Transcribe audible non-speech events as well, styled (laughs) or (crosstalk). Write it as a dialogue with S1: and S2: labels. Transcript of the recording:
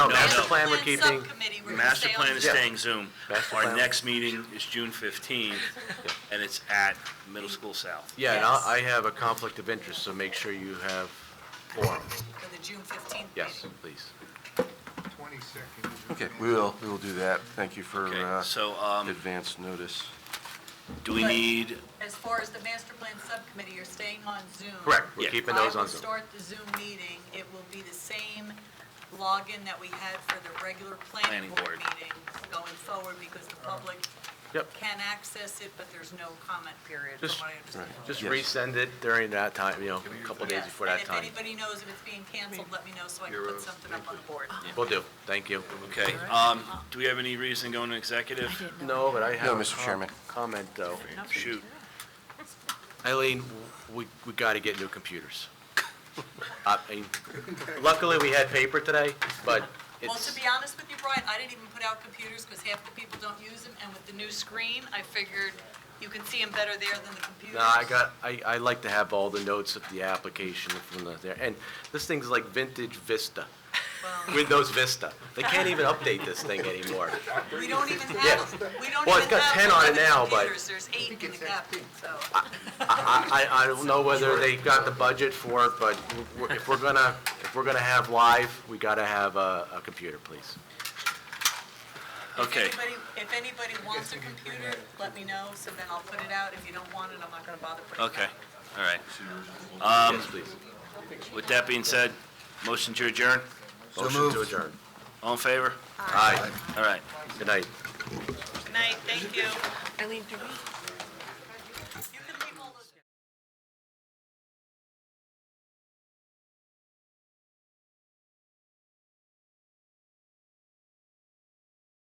S1: Master Oh, plan we're keeping.
S2: Subcommittee, we're gonna
S3: Master
S2: stay on
S3: plan is
S1: Yeah.
S3: staying Zoom.
S1: Master
S3: Our
S1: plan.
S3: next meeting is June 15th,
S1: (laughs)
S3: and it's at Middle School South.
S1: Yeah, and I, I
S2: Yes.
S1: have a conflict of interest, so make sure you have form.
S2: for the June 15th meeting.
S1: Yes, please.
S4: Twenty-second.
S5: Okay, we will, we will do that. Thank you for
S3: Okay,
S5: uh,
S3: so um,
S5: advance notice.
S3: do we need,
S2: As far as the master plan subcommittee, you're staying on Zoom.
S1: Correct,
S3: Yeah.
S1: we're keeping those
S2: I
S1: on
S2: will
S1: Zoom.
S2: start the Zoom meeting. It will be the same login that we had for the regular planning
S3: Planning
S2: board
S3: board.
S2: meeting going forward because the public
S1: Yep,
S2: can access it, but there's no comment period, from
S1: Just-
S2: what I understand.
S1: just
S5: Yes.
S1: resend it during that time, you know, a couple days
S2: Yes,
S1: before that
S2: and
S1: time.
S2: if anybody knows if it's being canceled, let me know so I can put something up on the board.
S1: Will do, thank you.
S3: okay, um, do we have any reason going to executive?
S1: No, but I have.
S5: No,
S1: a
S5: Mr.
S1: com-
S5: Chairman.
S1: Comment, though.
S3: Shoot,
S1: Eileen, w- we, we gotta get new computers. (laughs) I mean, Luckily, we had paper today, but
S2: Well, to
S1: it's,
S2: be honest with you, Brian, I didn't even put out computers because half the people don't use them, and with the new screen, I figured you can see them better there than the computers.
S1: no, I got, I, I like to have all the notes of the application from the, there, and this thing's like vintage Vista,
S2: Well,
S1: Windows Vista. They can't even update this thing anymore.
S2: We don't
S1: (laughs)
S2: even
S1: Yeah.
S2: have, we don't
S1: Well, it's
S2: even
S1: got
S2: have
S1: 10 on it
S2: 11
S1: now, but-
S2: computers. There's eight in the cabinet, so.
S1: I, I, I don't know whether they got the budget for it, but we're- if we're gonna, if we're gonna have live, we gotta have a, a computer, please.
S3: okay.
S2: If anybody, if anybody wants a computer, let me know, so then I'll put it out. If you don't want it, I'm not gonna bother putting it out.
S3: Okay, all right.
S1: Yes, please.
S3: With that being said, motion to adjourn?
S1: Motion to adjourn.
S3: All in favor?
S1: Aye.
S3: All right.
S1: Good night.
S2: Good night, thank you.
S6: Eileen, do we